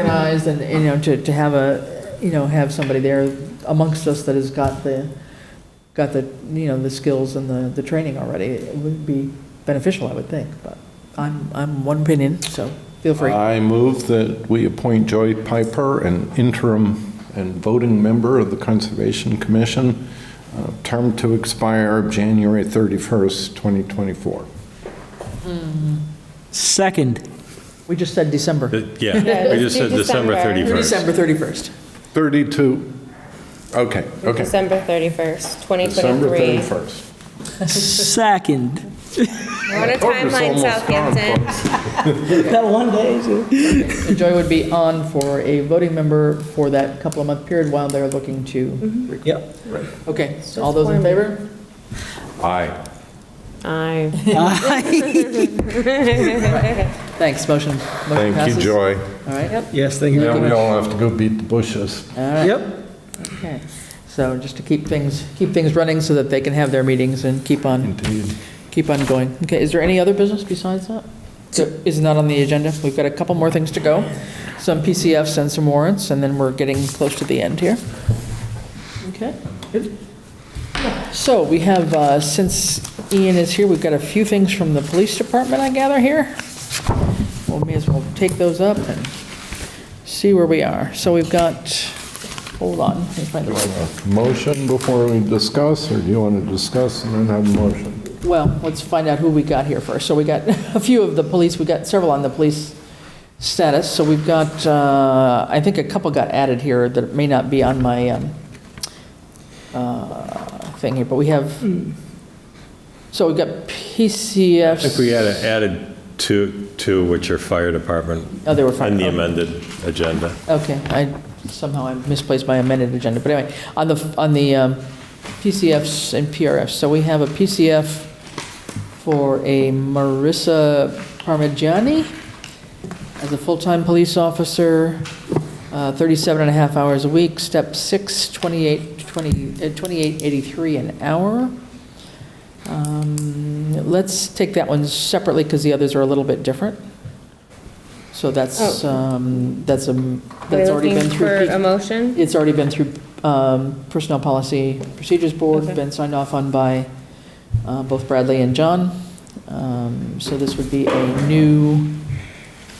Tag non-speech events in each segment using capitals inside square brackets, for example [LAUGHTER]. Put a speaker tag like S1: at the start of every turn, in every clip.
S1: organized and, you know, to, to have a, you know, have somebody there amongst us that has got the, got the, you know, the skills and the, the training already, it would be beneficial, I would think, but I'm, I'm one opinion, so feel free.
S2: I move that we appoint Joy Piper, an interim and voting member of the Conservation Commission, uh, term to expire January 31st, 2024.
S3: Second.
S1: We just said December,
S4: Uh, Yeah, we
S5: let's
S4: just
S5: do
S4: said December
S5: December.
S4: 31st.
S1: December 31st.
S2: 32, okay, okay.
S5: December 31st,
S2: December
S5: 2023.
S2: 31st.
S3: Second.
S5: We're on
S2: Hope
S5: a
S2: it's
S5: timeline,
S2: almost gone,
S5: Southampton.
S2: folks.
S3: That one day.
S1: So Joy would be on for a voting member for that couple of month period while they're looking to,
S3: Yep.
S1: okay, all those in favor?
S2: Aye. [LAUGHS]
S5: Aye.
S1: Thanks, motion, motion
S2: Thank you,
S1: passes.
S2: Joy.
S1: All right,
S3: Yes, thank
S2: Now we all have to go beat the bushes.
S1: all right.
S3: Yep.
S1: Okay, so just to keep things, keep things running so that they can have their meetings and keep on,
S2: Indeed.
S1: keep on going. Okay, is there any other business besides that? There is not on the agenda. We've got a couple more things to go, some PCFs and some warrants, and then we're getting close to the end here. Okay, good. So we have, uh, since Ian is here, we've got a few things from the police department, I gather, here. Well, may as well take those up and see where we are. So we've got, hold on, let me find the right
S2: Motion before we discuss, or do you want to discuss and then have a motion?
S1: Well, let's find out who we got here first. So we got [LAUGHS] a few of the police, we got several on the police status. So we've got, uh, I think a couple got added here that may not be on my um, uh, thing here, but we have, so we've got
S4: Hmm. I think we
S1: PCFs.
S4: had added two, two which are fire department
S1: Oh, they were
S4: on
S1: fine.
S4: the
S1: Okay.
S4: amended agenda.
S1: Okay, I, somehow I misplaced my amended agenda, but anyway, on the, on the um, PCFs and PRFs, so we have a PCF for a Marissa Parmigiani as a full-time police officer, uh, 37 and a half hours a week, step six, 28, 20, uh, 2883 an hour. Um, Let's take that one separately, because the others are a little bit different. So that's, um, that's a, that's
S5: We're
S1: already been
S5: looking
S1: through.
S5: for
S1: P-
S5: a motion?
S1: it's already been through um, Personnel Policy Procedures Board,
S5: Okay.
S1: been signed off on by uh, both Bradley and John. Um, So this would be a new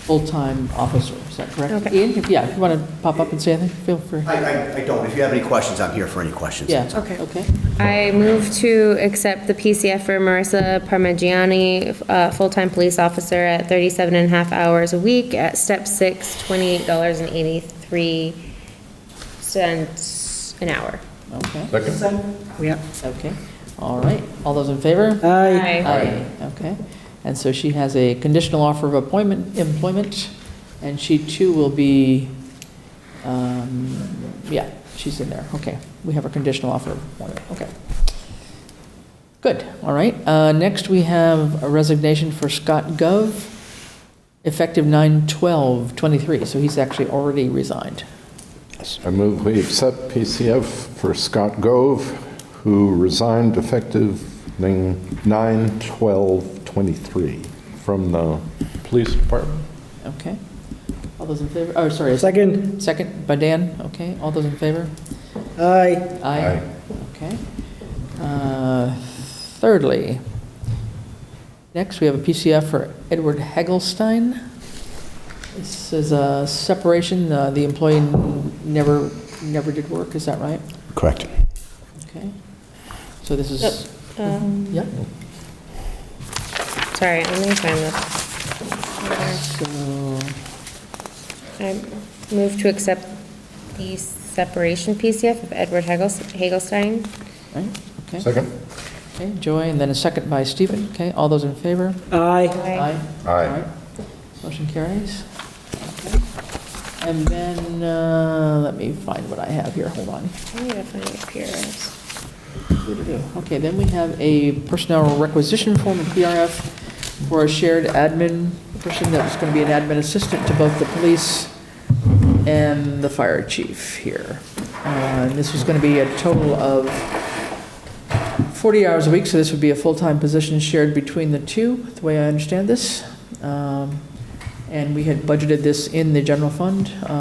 S1: full-time officer, is that correct?
S5: Okay.
S1: Ian, if- yeah, if you want to pop up and say anything, feel free.
S6: I, I, I don't. If you have any questions, I'm here for any questions.
S1: Yeah,
S5: Okay.
S1: okay.
S5: I move to accept the PCF for Marissa Parmigiani, uh, full-time police officer at 37 and a half hours a week at step six, $28.83 an hour.
S1: Okay,
S2: Second?
S3: Yeah.
S1: okay. All right, all those in favor?
S3: Aye.
S1: Aye. Okay, and so she has a conditional offer of appointment, employment, and she too will be, um, yeah, she's in there, okay. We have a conditional offer of appointment, okay. Good, all right. Uh, Next, we have a resignation for Scott Gov, effective 9/12/23, so he's actually already resigned.
S2: I move we accept PCF for Scott Gove, who resigned effective 9/12/23 from the police department.
S1: Okay. All those in favor, oh, sorry,
S3: Second.
S1: second by Dan, okay, all those in favor?
S3: Aye.
S1: Aye. Okay. Uh, Thirdly, next, we have a PCF for Edward Hagelstein. This is a separation, uh, the employee never, never did work, is that right?
S6: Correct.
S1: Okay. So this is,
S5: Um,
S1: yeah,
S5: Sorry, let me find this.
S1: so,
S5: I move to accept the separation PCF of Edward Hagels- Hagelstein.
S1: right, okay,
S2: Second?
S1: okay, Joy, and then a second by Stephen, okay, all those in favor?
S3: Aye.
S5: Aye.
S2: Aye.
S1: All right. Motion carries. Okay. And then, uh, let me find what I have here, hold on.
S5: I need to find the PRFs.
S1: Okay, then we have a personnel requisition form, a PRF, for a shared admin person that was going to be an admin assistant to both the police and the fire chief here. Uh, And this was going to be a total of 40 hours a week, so this would be a full-time position shared between the two, the way I understand this. Um, And we had budgeted this in the general fund.